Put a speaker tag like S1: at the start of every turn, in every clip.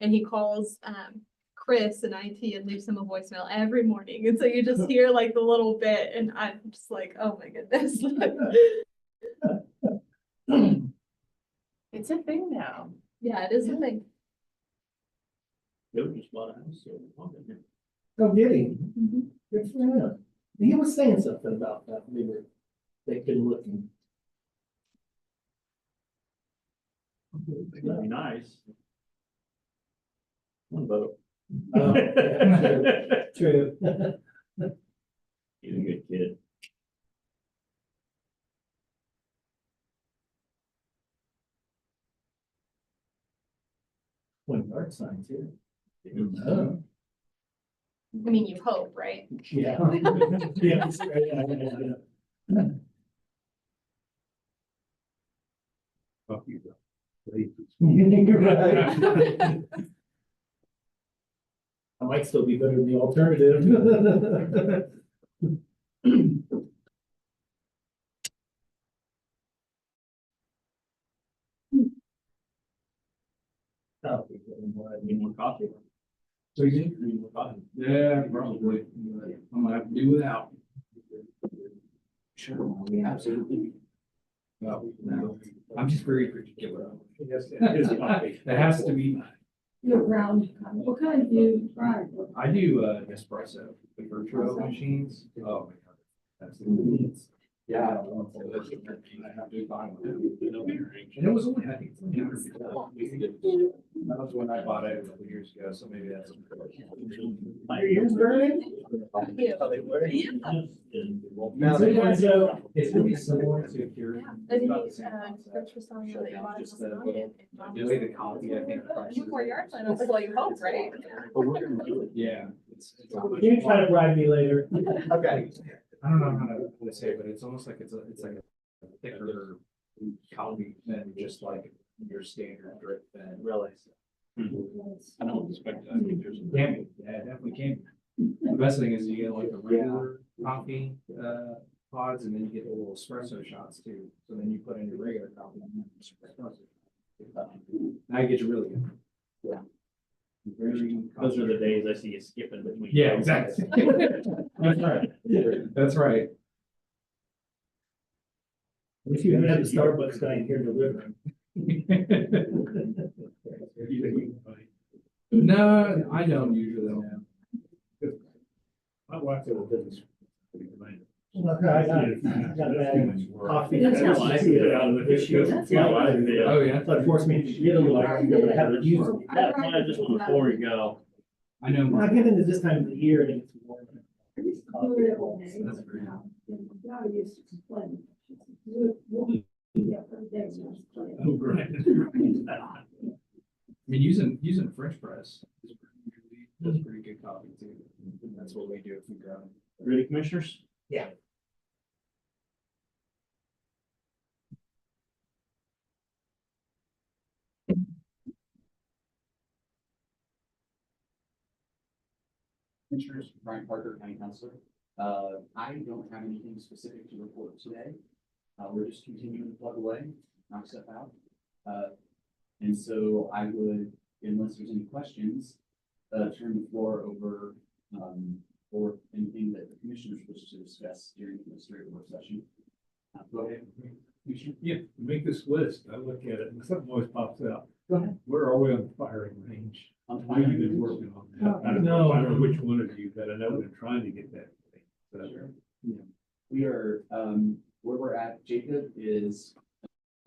S1: And he calls, um, Chris in IT and leaves him a voicemail every morning. And so you just hear like the little bit and I'm just like, oh my goodness.
S2: It's a thing now.
S1: Yeah, it is a thing.
S3: Nobody just bought a house, so. we're welcome here.
S4: Oh, did he?
S3: Mm-hmm.
S4: Good for him. He was saying something about that, we were, they've been looking.
S3: That'd be nice. One vote.
S4: Oh, yeah,
S3: He's
S4: True.
S3: a good kid.
S4: One yard sign too.
S5: Oh.
S4: Oh.
S3: He
S1: I mean, you hope, right?
S4: Yeah. Yeah, that's right. Yeah, yeah, yeah.
S5: Fuck you, though.
S4: You're right. I might still be better than the alternative. That'll be good and wide.
S3: Need more coffee?
S5: So you,
S3: Need more coffee?
S5: yeah, probably, I'm gonna have to do without. Sure, absolutely. No, no, I'm just very particular. It has to be,
S6: Your ground, uh, what kind do you try?
S5: I do uh espresso, the virtual machines, oh my god. That's
S4: Mm-hmm.
S5: the convenience. Yeah. I don't want to say that's- I have to buy one. And it was only, I think, it's only $150. That was when I bought it a couple years ago, so maybe that's.
S4: Your ears burning?
S1: Yeah.
S4: Oh, they were.
S5: Now,
S4: So,
S5: they-
S4: yeah, so-
S5: it's really similar to if you're.
S1: I think,
S5: about the
S1: uh,
S5: same concept.
S1: Chris was telling me that you bought it
S5: Just
S1: just
S5: the
S1: now,
S5: little-
S1: and-
S5: The way the coffee, I think.
S1: You wore your outfit, that's all you hope, right?
S5: Yeah. it's- it's almost-
S4: You can try to bribe me later.
S5: Okay. I don't know how to really say, it, but it's almost like it's a, it's like a thicker coffee than just like your standard drip than. Really?
S3: I don't expect that. I think there's a-
S5: Can be, yeah, it definitely can. be. The best thing is you get like the regular coffee, uh, pods and then you get the little espresso shots too. So then you put in your regular coffee. and then espresso. Now you get your really good.
S6: Yeah.
S5: Very.
S3: Those are the days I see you skipping between.
S5: Yeah, exactly. That's right. That's right.
S4: If you had a Starbucks guy in here delivering.
S5: No, I don't usually.
S4: My wife did a business. I got, I got a bad coffee.
S3: That's how I feel about it.
S4: Issue.
S3: That's how I feel.
S5: Oh, yeah.
S4: So it forced me to get a little, I have to use it.
S3: That's why I just want to pour and go.
S5: I know.
S4: When I
S5: mine.
S4: get into this time of the year and it's warm.
S5: That's very-
S6: I used to complain. You would- yeah, every day was complaining.
S3: Oh, right.
S5: I mean, using, using French press is usually, that's pretty good coffee too. And That's what we do if we grow.
S3: Ready, commissioners?
S4: Yeah.
S7: Commissioners, Brian Parker, County Counselor. Uh, I don't have anything specific to report today. Uh, we're just continuing to plug away, knock stuff out. Uh, and so I would, unless there's any questions, uh, turn the floor over, um, or anything that the commissioners wish to discuss during this regular work session. Uh, Go ahead. Commissioner.
S8: Yeah, make this list, I look at it, and something always pops out.
S7: Go ahead.
S8: Where are we on the firing range?
S7: On
S8: I know you've been
S7: fire.
S8: working on that. I don't know, I don't know which one of you, but I know they're trying to get that. thing. So,
S7: Sure. Yeah. We are, um, where we're at, Jacob, is,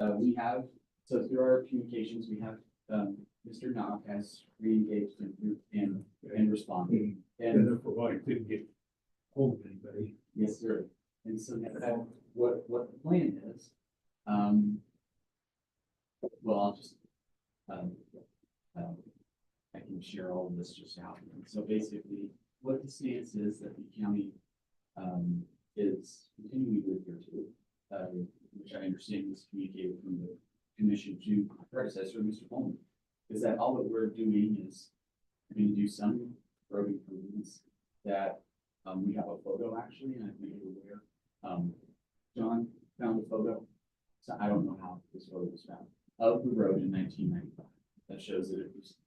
S7: uh, we have, so through our communications, we have, um, Mr. Knox has reengaged and, and, and responded.
S8: And
S7: And
S8: then for a while, I couldn't get hold of anybody.
S7: Yes, sir. And so that- that, what, what the plan is, um, well, I'll just, um, um, I can share all of this just out. So basically, what the stance is that the county, um, is continuing with your tool, uh, which I understand was communicated from the commission to my predecessor, Mr. Coleman, is that all that we're doing is, going to do some road improvements that um, we have a photo actually, and I think you're aware. Um, John found a photo, so I don't know how this photo was found, of the road in nineteen ninety-five. That shows that it was